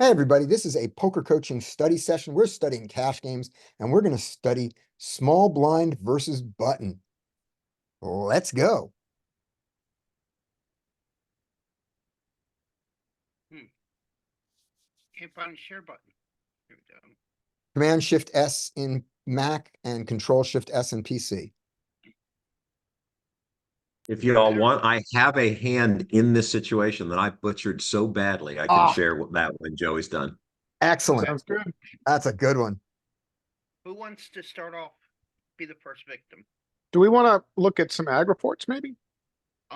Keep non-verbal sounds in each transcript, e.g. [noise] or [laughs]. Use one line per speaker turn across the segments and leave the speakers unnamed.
Hey, everybody, this is a poker coaching study session. We're studying cash games and we're gonna study small blind versus button. Let's go.
Can't find the share button. Here we go.
Command Shift S in Mac and Control Shift S in PC.
If you all want, I have a hand in this situation that I butchered so badly. I
Ah.
can share what that when Joey's done.
Excellent.
good.
That's a good one.
Who wants to start off? Be the first victim.
Do we wanna look at some ag reports maybe?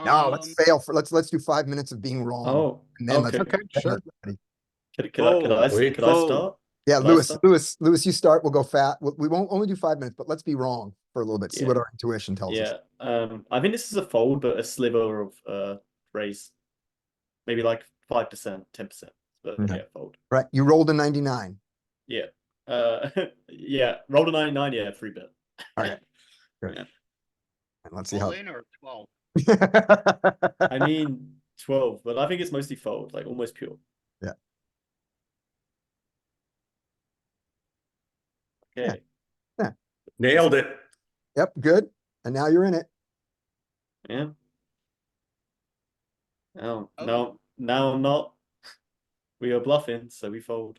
No, let's
Um,
fail for, let's, let's do five minutes of being wrong.
Oh,
And then let's-
okay.
Okay,
then
sure.
let's study.
Can, can, I, can, I,
Fold,
can I
fold.
start?
Yeah,
Can I
Lewis,
start?
Lewis, Lewis, you start. We'll go fat. We we won't only do five minutes, but let's be wrong for a little bit. See
Yeah.
what our intuition tells us.
Yeah. Um, I think this is a fold, but a sliver of uh raise, maybe like five percent, ten percent. But
Okay.
yeah, fold.
Right? You rolled a ninety-nine.
Uh, [laughs] yeah, roll a ninety nine. Yeah, three bet.
Alright. And let's see
All
how.
in or twelve?
[laughs]
I mean twelve, but I think it's mostly fold, like almost pure.
Yeah.
Okay.
Nailed it.
Yep, good. And now you're in it.
Yeah. Oh,
Oh.
no, now I'm not. We are bluffing, so we fold.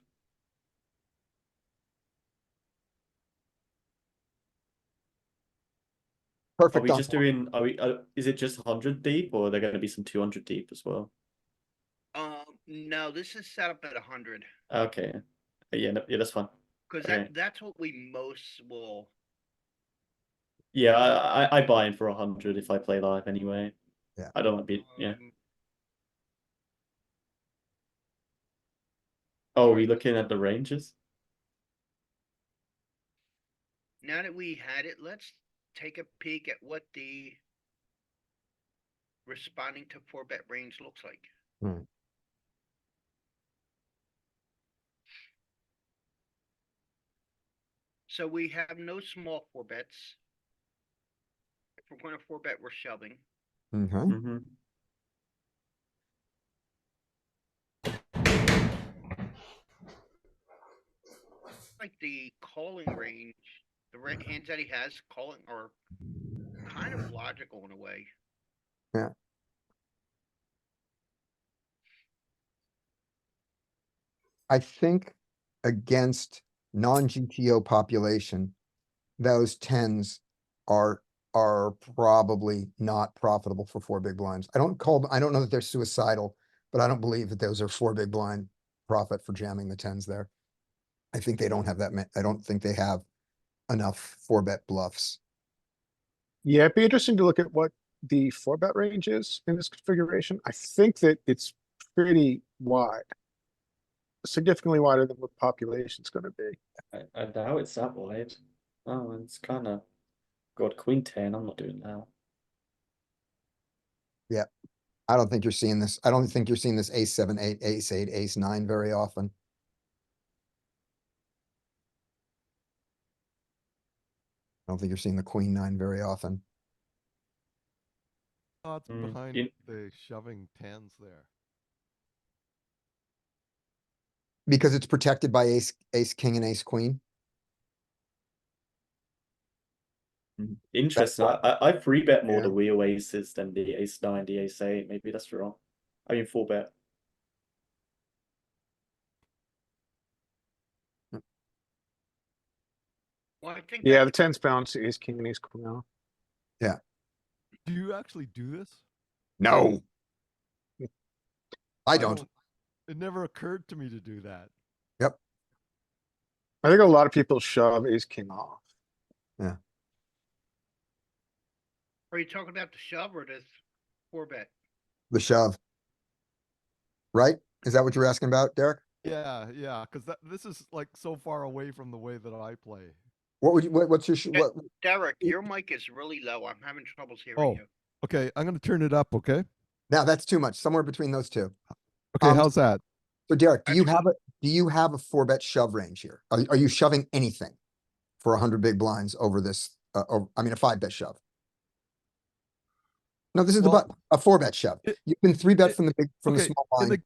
Are
Perfect.
we
on
just doing, are we, uh, is it just 100 deep or are there going to be some 200 deep as well?
Um, no, this is set up at a hundred,
Okay. Uh, Yeah, no, yeah, that's fine.
cause
Okay.
that, that's what we most will,
Yeah, I, I, I buy in for 100 if I play live anyway.
Yeah.
I don't want to be, yeah.
um,
Oh, are we looking at the ranges?
now that we had it, let's take a peek at what the responding to four bet range looks like. So we have no small four bets. If we're going to four bet, we're shoving.
Mhm.
hmm
like the calling range, the right hands that he has calling are kind of logical in a way.
Yeah. I think against non-GTO population, those tens are, are probably not profitable for four big blinds. I don't call, I don't know that they're suicidal, but I don't believe that those are four big blind profit for jamming the tens there. I think they don't have that, ma- I don't think they have enough four bet bluffs.
Yeah, it'd be interesting to look at what the four bet range is in this configuration. I think that it's pretty wide. Significantly wider than what population's gonna be.
I, I doubt it's that wide. Oh, it's kind of. God, queen 10. I'm not doing that.
I don't think you're seeing this, I don't think you're seeing this ace seven, eight, ace eight, ace nine very often. I don't think you're seeing the queen nine very often.
Odds
Mm,
behind
in-
the shoving tens there.
Because it's protected by ace, ace, king and ace queen.
Interesting. I, I, I three bet more
Yeah.
the wheel aces than the ace nine, the ace eight. Maybe that's wrong. I mean, four bet.
Well, I think
Yeah, the
that's-
tens bounce is king and ace queen now.
Do you actually do this?
No. I
Oh.
don't.
It never occurred to me to do that.
I think a lot of people shove ace king off.
are you talking about the shove or this four bet?
The shove. Right? Is that what you're asking about, Derek?
Yeah, yeah, because that this is like so far away from the way that I play.
What would you, what, what's your, sh- what,
Derek,
It-
your mic is really low. I'm having troubles
Oh,
hearing you.
Okay, I'm gonna turn it up. Okay.
now that's too much, somewhere between those two.
Okay,
Um,
how's that?
So Derek, do you
Actually-
have a, do you have a four bet shove range here? Are, are you shoving anything for a hundred big blinds over this, uh, or, I mean, a five bet shove? No, this is the
Well,
button, a four bet shove.
it-
You can three bet
it-
from the big, from the
okay,
small
In the
blind.